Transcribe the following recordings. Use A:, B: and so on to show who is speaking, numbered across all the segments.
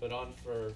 A: but on for,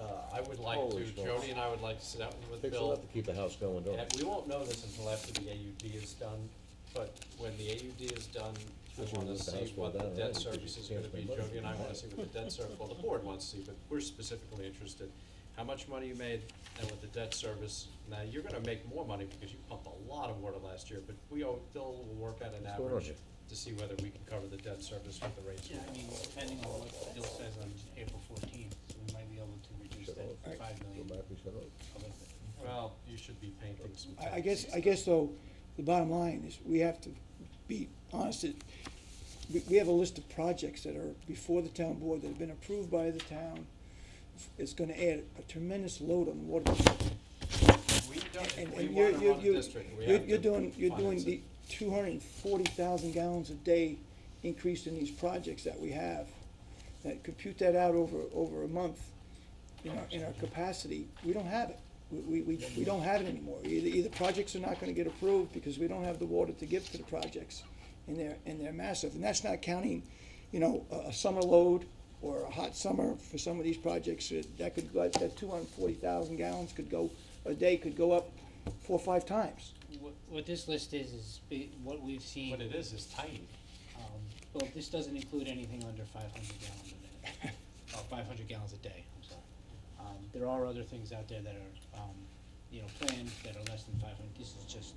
A: uh, I would like
B: Holy
A: to,
B: smokes.
A: Jody and I would like to sit out with
B: Fix it
A: Bill.
B: up to keep the house going, don't
A: And
B: it?
A: we won't know this until after the AUD is done, but when the AUD is done, I
B: Since you
A: wanna
B: moved the
A: see
B: house
A: what
B: down,
A: the
B: right,
A: debt
B: because you
A: service is
B: can't
A: gonna be,
B: spend money.
A: Jody and I wanna see what the debt service, well, the board wants to see, but we're specifically interested. How much money you made and with the debt service, now you're gonna make more money because you pumped a lot of water last year, but we all, Bill will work out an
B: What's going on
A: average
B: here?
A: to see whether we can cover the debt service with the rates. we
C: Yeah, I mean, depending on what the bill says on April fourteenth, we might be able to reduce
B: Shut
C: that
B: off.
C: five million
B: Go
C: a
B: back and shut off.
C: little bit.
A: Well, you should be painting some.
D: I, I guess, I guess though, the bottom line is, we have to be honest, that we, we have a list of projects that are before the town board that have been approved by the town. It's gonna add a tremendous load on the water. district.
A: We don't,
D: And,
A: if we
D: and you're,
A: wanna
D: you're,
A: run a
D: you're,
A: district, we
D: you're
A: have
D: you're
A: to
D: doing, you're
A: finance
D: doing
A: it.
D: the two hundred and forty thousand gallons a day increase in these projects that we have. That compute that out over, over a month, in our, in our capacity, we don't have it. We, we, we, we don't have it anymore. Either, either projects are not gonna get approved because we don't have the water to give to the projects. And they're, and they're massive, and that's not counting, you know, a, a summer load or a hot summer for some of these projects. It- That could, go- that two hundred and forty thousand gallons could go, a day could go up four, or five times.
E: What, what this list is, is be- what we've seen.
A: What it is, is tiny.
E: Um, well, this doesn't include anything under five hundred gallons a minute,
C: Oh,
E: or five hundred gallons a day, I'm sorry. Um, there are other things out there that are, um, you know, planned that are less than five hundred, this is just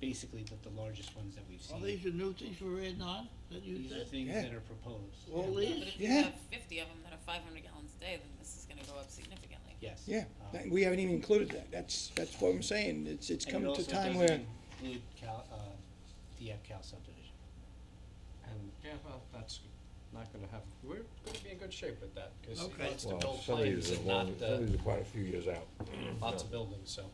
E: basically the, the largest ones that we've seen.
F: All these are new things we're adding on, that you
E: These are
F: said?
E: things
D: Yeah.
E: that are proposed,
F: All
E: Yeah.
G: Yeah,
F: these?
G: But if you
D: Yeah.
G: have fifty of them that are five hundred gallons a day, then this is gonna go up significantly.
E: yes.
D: Yeah,
E: Um,
D: that- we haven't even included that. That's, that's what I'm saying. It's, it's
E: and it
D: coming to a
E: also
D: time
E: doesn't
D: where,
E: Include Cal, uh, DF Cal subdivision.
A: And, yeah, well, that's not gonna happen. We're gonna be in good shape with that, cause he
F: Okay.
A: wants to
B: Well,
A: build
B: some of
A: planes
B: these are
A: and not,
B: long, some
A: uh,
B: of these are quite a few years out.
A: lots of buildings, so.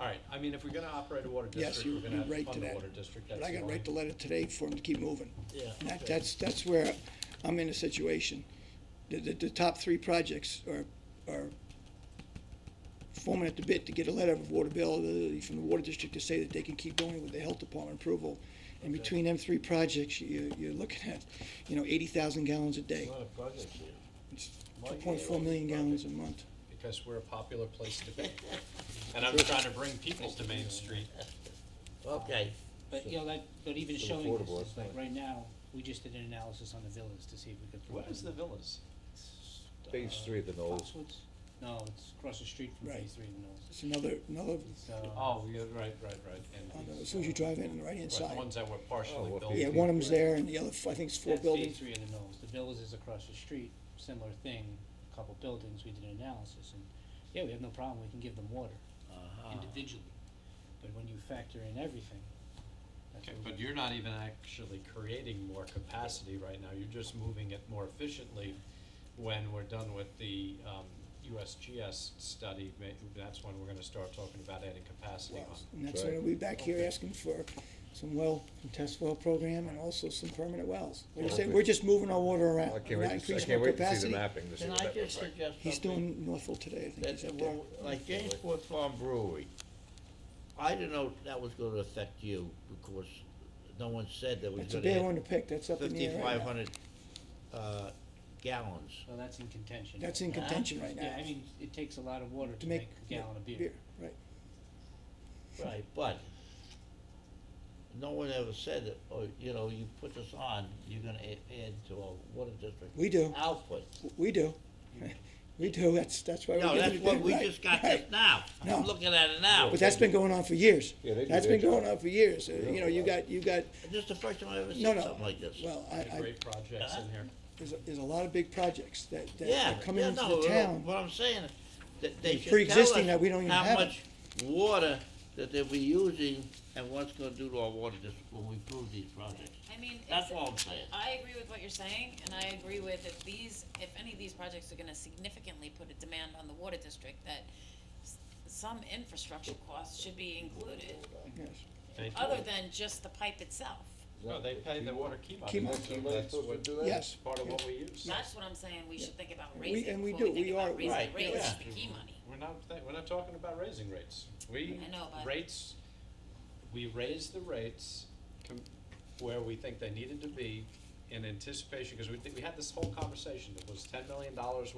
A: Alright, I mean, if we're gonna operate a water
D: Yes,
A: district,
D: you-
A: we're gonna
D: you're
A: have to
D: right
A: fund
D: to
A: the
D: that.
A: water district, that's
D: but
A: the
D: I
A: only.
D: gotta write the letter today for them to keep moving.
A: Yeah.
D: And that,
A: okay.
D: that's, that's where I'm in a situation. The, the, the top three projects are, are foaming at the bit to get a letter of waterability from the water district to say that they can keep going with the health department approval. And
A: Okay.
D: between them three projects, you, you're looking at, you know, eighty thousand gallons a day.
B: a project here.
D: It's
A: Well,
D: two
A: yeah,
D: point four
A: well,
D: million
A: okay.
D: gallons a month.
A: Because we're a popular place to be. And I'm trying to bring people to Main Street.
B: Okay.
E: But, you know, like, but even
B: Still
E: showing
B: affordable,
E: this,
B: it's
E: is like,
B: not-
E: right now, we just did an analysis on the villas to see if we could.
A: What
E: provide
A: is the villas?
B: Phase three of the Knolls.
E: Foxwoods? No, it's across the street from
D: Right.
E: phase three of the Knolls.
D: It's another, another,
E: It's, uh,
A: Oh, yeah, right, right, right,
D: on
A: and.
D: the- Oh, as soon as you drive in on the
A: Right,
D: right-hand
A: The
D: side.
A: ones that were partially
B: what
A: built.
B: phase
D: Yeah, one of them's there and the other, f- I think it's four
E: that's phase
D: buildings.
E: three of the Knolls. The villas is across the street, similar thing, a couple buildings, we did an analysis and, yeah, we have no problem, we can give them water
B: Uh-huh.
E: individually. But when you factor in everything, that's
A: Okay,
E: what we.
A: but you're not even actually creating more capacity right now, you're just moving it more efficiently when we're done with the, um, USGS study, may, that's when we're gonna start talking about adding capacity on.
D: And that's
B: Right.
D: when we'll be back here asking for some well, and test well program and also some permanent wells. Like I said, we're just moving our water around.
B: I
D: We're
B: can't
D: not
B: wait, to- I
D: increasing
B: can't
D: our
B: wait to see
D: capacity.
B: the mapping, to see
F: Can
B: what
F: I
B: that looks
F: just
B: like.
F: suggest
D: He's
F: something?
D: doing Northville today, I think
F: That's,
D: he's up there.
F: well, like Jamesport Farm Brewery. I didn't know that was gonna affect you, because no one said that was
D: That's a
F: gonna
D: bad one to
F: add
D: pick, that's up in the air right
F: fifty-five
D: now.
F: hundred, uh, gallons.
E: Well, that's in contention.
D: That's in
F: Huh?
D: contention right
E: Yeah, I
D: now,
E: mean, it takes a lot of water
D: to
E: to
D: make.
E: make a gallon of beer.
D: Beer, right.
F: Right, but no one ever said that, or, you know, you put this on, you're gonna add, add to our water district.
D: We do.
F: Output.
D: W- We do. We do, that's, that's why we're
F: No,
D: giving
F: that's
D: it
F: what,
D: back.
F: we
D: Right,
F: just got
D: right.
F: this now.
D: No.
F: I'm looking at it now.
D: But that's been going on for years.
B: Yeah, they do
D: That's
B: their
D: been going
B: job.
D: on for years. Uh,
B: Yeah.
D: You know, you got, you got,
F: This is the first time I ever
D: no,
F: seen
D: no.
F: something like this.
D: Well, I,
A: The
D: I,
A: Great projects in here.
D: there's, a- there's a lot of big projects that, that
F: Yeah,
D: are coming
F: yeah,
D: into
F: no,
D: the town.
F: What I'm saying, that they
D: It's
F: should tell us
D: pre-existing that we don't even
F: how
D: have it.
F: much water that they'll be using and what's gonna do to our water district when we prove these projects.
G: I mean,
F: That's
G: it's,
F: all I'm saying.
G: I agree with what you're saying, and I agree with if these, if any of these projects are gonna significantly put a demand on the water district, that s- some infrastructure costs should be included,
D: Yes.
A: They do
G: other
A: it.
G: than just the pipe itself.
A: No, they pay the water keep on.
D: Keep on.
A: That's what-
B: Somebody's supposed to do that?
D: Yes.
A: Part of what we use.
G: That's what I'm saying, we should think about
D: We-
G: raising,
D: and we
G: before
D: do,
G: we think
D: we are-
G: about raising
F: Right,
G: rates,
F: yeah.
G: the key money.
A: We're not, th- we're not talking about raising rates. We,
G: I know, but-
A: rates, we raise the rates com- where we think they needed to be in anticipation, because we, thi- we had this whole conversation, it was ten million dollars